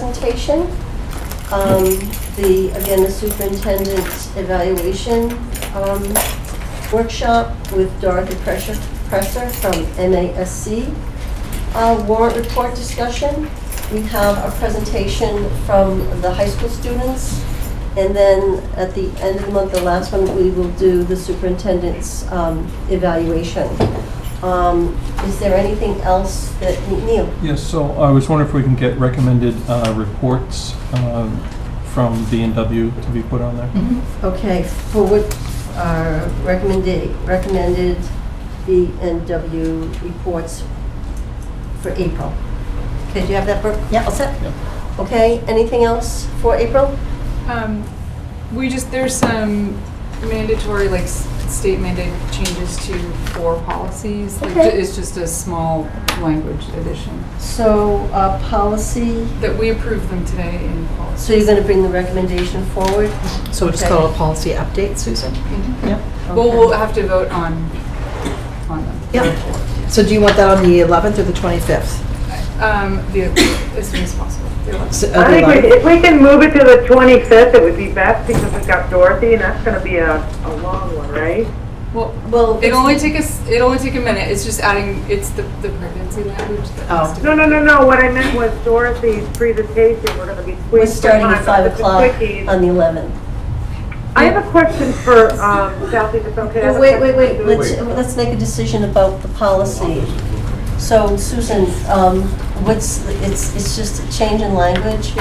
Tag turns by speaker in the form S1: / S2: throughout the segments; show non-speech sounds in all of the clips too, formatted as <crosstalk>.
S1: presentation. Um, The, again, the superintendent's evaluation um, workshop with Dorothy Presser Presser from MASC. Uh, Warrant report discussion. We have a presentation from the high school students. And then at the end of the month, the last one, we will do the superintendent's um, evaluation. Um, Is there anything else that, Neil?
S2: Yes, so I was wondering if we can get recommended uh, reports um, from B and W to be put on there?
S1: Okay, for what are recommended, recommended B and W reports for April? Okay, do you have that, Brooke?
S3: Yeah.
S1: All set?
S2: Yeah.
S1: Okay, anything else for April?
S4: Um, we just, there's some mandatory, like, s- state mandated changes to four policies. Like, ju-
S1: Okay.
S4: It's just a small language addition,
S1: So, uh, policy,
S4: that we approved them today in policy.
S1: so you're gonna bring the recommendation forward?
S3: So we'll just
S1: Okay.
S3: call a policy update, Susan? Yep.
S4: Well,
S1: Okay.
S4: Mm-hmm. we'll have to vote on, on them.
S3: Yep. So do you want that on the 11th or the 25th?
S4: Um, the, as soon as possible. The eleventh.
S3: S- uh, the
S5: I think
S3: 11th.
S5: we- if we can move it to the 25th, it would be best because we've got Dorothy and that's going to be a, a long one, right?
S4: Well,
S1: Well,
S4: it'll only take us, it'll only take a minute. It's just adding, it's the, the pregnancy language that
S3: Oh.
S4: has to.
S5: No, no, no, no, what I meant was Dorothy's presentation, we're going to be squeezed.
S1: we're
S5: for
S1: starting
S5: time,
S1: at five
S5: but the
S1: o'clock
S5: quickies-
S1: on the eleventh.
S5: I have a question for, um, Southie, if it's okay. I have a
S1: Wait, wait,
S5: question
S1: wait,
S5: for
S1: let's,
S5: Susan.
S1: let's make a decision about the policy. So Susan, um, what's, it's, it's just a change in language,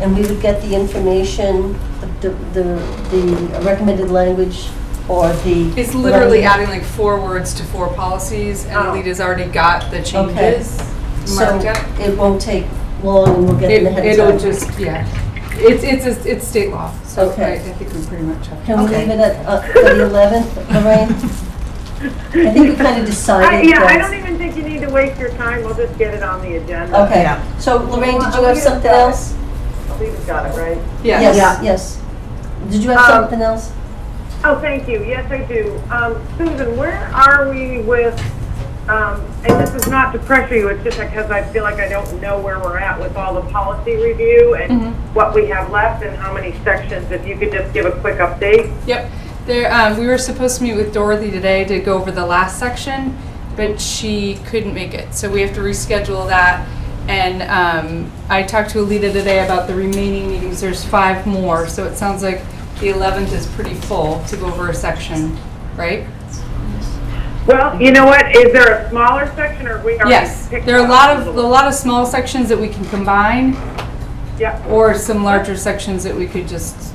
S1: and we would get the information, the, the, the recommended language, or the.
S4: It's literally adding like four words to four policies and
S5: Oh.
S4: Alita's already got the changes
S1: So
S4: marked up.
S1: it won't take long, and we'll get
S4: It-
S1: it ahead
S4: It'll
S1: of time.
S4: just, yeah, it's, it's, a- it's state law, so I
S1: Okay.
S4: I think we pretty much have.
S1: Can we
S3: Okay.
S1: leave it at, uh, for the eleventh, Lorraine? I
S5: <laughs>
S1: think we kind of
S5: I-
S1: decided
S5: Yeah,
S1: that.
S5: I don't even think you need to waste your time, we'll just get it on the agenda.
S1: Okay,
S3: Yeah.
S1: so Lorraine, did you
S5: Well,
S1: have
S5: we
S1: something
S5: decided.
S1: else?
S5: I believe we've got it, right?
S4: Yeah.
S1: Yes, yes. Did you have
S5: Um,
S1: something else?
S5: Oh, thank you. Yes, I do. Um, Susan, where are we with, um, and this is not to pressure you, it's just because I feel like I don't know where we're at with all the policy review and
S4: Mm-hmm.
S5: what we have left and how many sections. If you could just give a quick update.
S4: Yep, there, um, we were supposed to meet with Dorothy today to go over the last section, but she couldn't make it, so we have to reschedule that. And, um, I talked to Alita today about the remaining meetings, there's five more, so it sounds like the eleventh is pretty full to go over a section, right?
S5: Well, you know what? Is there a smaller section or we already
S4: Yes,
S5: picked
S4: there are a
S5: up
S4: lot of, a
S5: little-
S4: lot of small sections that we can combine,
S5: Yeah.
S4: or some larger sections that we could just.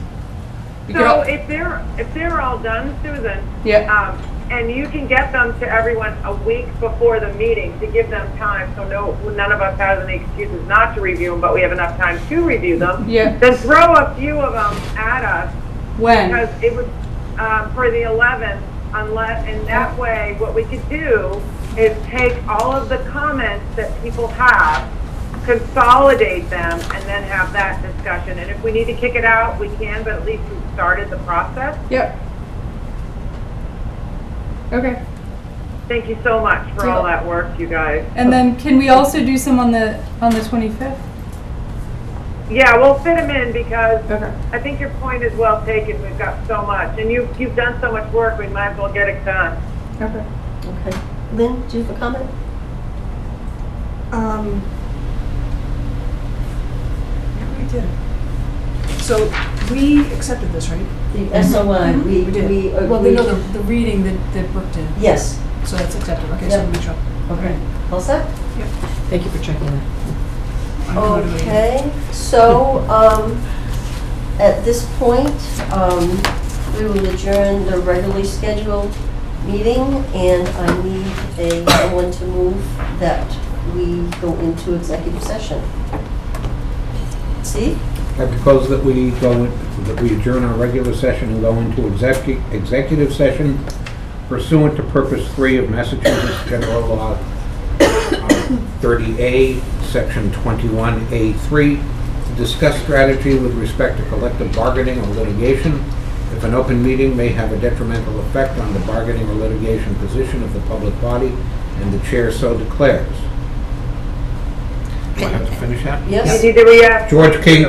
S4: we could
S5: So
S4: all-
S5: if they're, if they're all done, Susan,
S4: Yeah,
S5: Um, and you can get them to everyone a week before the meeting to give them time, so no, none of us has any excuses not to review them, but we have enough time to review them.
S4: yeah,
S5: Then throw a few of them at us,
S4: when?
S5: because it would, um, for the eleventh, unless, and that way, what we could do is take all of the comments that people have, consolidate them, and then have that discussion, and if we need to kick it out, we can, but at least we've started the process.
S4: Yep. Okay,
S5: Thank you so much for all that work, you guys.
S4: and then can we also do some on the, on the twenty-fifth?
S5: Yeah, we'll fit them in because
S4: Okay.
S5: I think your point is well taken. We've got so much, and you, you've done so much work, we might as well get it done.
S4: Okay.
S1: Okay. Lynn, do you have a comment?
S3: Um, yeah, we did. So we accepted this, right? Mm-hmm.
S1: The SOI, we,
S3: We did.
S1: we.
S3: Well, we know
S1: agreed-
S3: the, the reading that, that Brooke did,
S1: Yes.
S3: so that's accepted, okay,
S1: Yeah.
S3: so we sure.
S1: Okay. All set?
S3: Thank you for checking that.
S1: Okay, so, um, at this point, um, we will adjourn the regularly scheduled meeting, and I need a, someone to move that we go into executive session. See?
S6: I propose that we go, that we adjourn our regular session and go into execu- executive session pursuant to purpose three of Massachusetts General Law uh, 30A, Section 21A3, to discuss strategy with respect to collective bargaining or litigation if an open meeting may have a detrimental effect on the bargaining or litigation position of the public body and the chair so declares.
S5: Do I have to finish that?
S7: Yes?
S6: You need to re
S5: George King,